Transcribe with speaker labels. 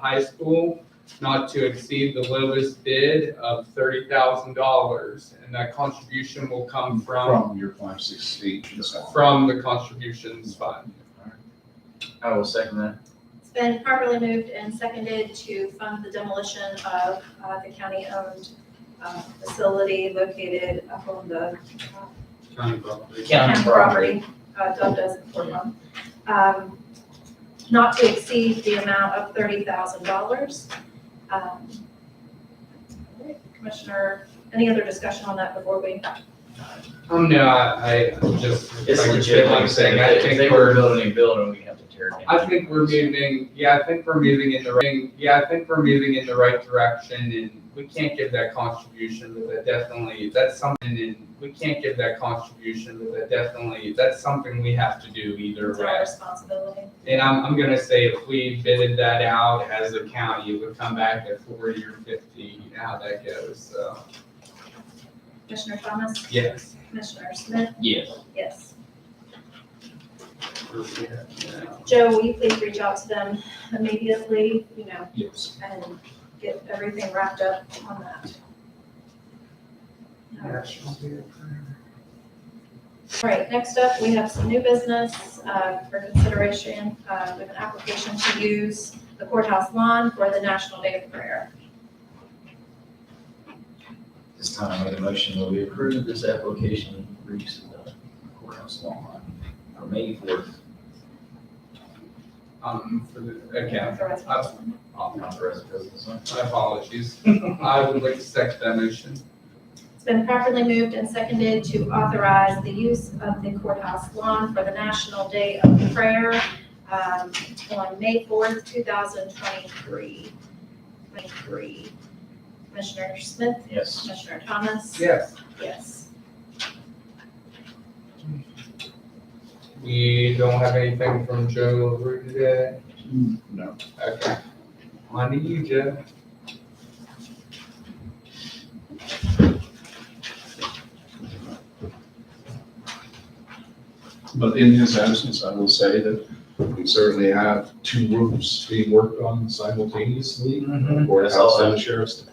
Speaker 1: High School not to exceed the lowest bid of thirty thousand dollars. And that contribution will come from,
Speaker 2: From your five, six, eight, and so on.
Speaker 1: from the contributions fund.
Speaker 3: I will second that.
Speaker 4: It's been properly moved and seconded to fund the demolition of uh, the county-owned uh, facility located up on the uh,
Speaker 1: County property.
Speaker 4: town property, uh, dubbed as a court home. Um, Not to exceed the amount of thirty thousand dollars. Um, Commissioner, any other discussion on that before we?
Speaker 1: Um, no, I, I just.
Speaker 3: It's
Speaker 1: like I
Speaker 3: legit,
Speaker 1: said,
Speaker 3: like I said,
Speaker 1: I
Speaker 3: if they- if they
Speaker 1: think
Speaker 3: were
Speaker 1: we're,
Speaker 3: building a building, we have to tear it
Speaker 1: I
Speaker 3: down.
Speaker 1: think we're moving, yeah, I think we're moving in the right, yeah, I think we're moving in the right direction and we can't give that contribution, but that definitely, that's something and we can't give that contribution, but that definitely, that's something we have to do either
Speaker 4: It's our
Speaker 1: way.
Speaker 4: responsibility.
Speaker 1: And I'm, I'm gonna say if we bidded that out as a county, it would come back at forty or fifty, you know how that goes, so,
Speaker 4: Commissioner Thomas,
Speaker 1: yes.
Speaker 4: Commissioner Smith,
Speaker 3: Yes.
Speaker 4: yes.
Speaker 1: we're here, yeah.
Speaker 4: Joe, will you please reach out to them immediately, you know,
Speaker 2: Yes.
Speaker 4: and get everything wrapped up on that? All right. All right, next up, we have some new business uh, for consideration, uh, with an application to use the courthouse lawn for the National Day of Prayer.
Speaker 3: This time I make a motion that we approve this application for use of the courthouse lawn for May fourth.
Speaker 1: Um, for the, okay,
Speaker 4: For us.
Speaker 1: I-
Speaker 3: I'll authorize the president.
Speaker 1: my apologies, I would like to second that motion.
Speaker 4: It's been properly moved and seconded to authorize the use of the courthouse lawn for the National Day of Prayer um, on May 4th, 2023. 23. Commissioner Smith,
Speaker 3: Yes.
Speaker 4: Commissioner Thomas?
Speaker 1: Yes.
Speaker 4: Yes.
Speaker 1: We don't have anything from Joe LaRue today.
Speaker 2: No.
Speaker 1: Okay. On to you, Joe.
Speaker 2: But in his absence, I will say that we certainly have two roofs being worked on simultaneously.
Speaker 3: Mhm.
Speaker 2: Or
Speaker 3: That's all
Speaker 2: outside
Speaker 3: I-
Speaker 2: the sheriff's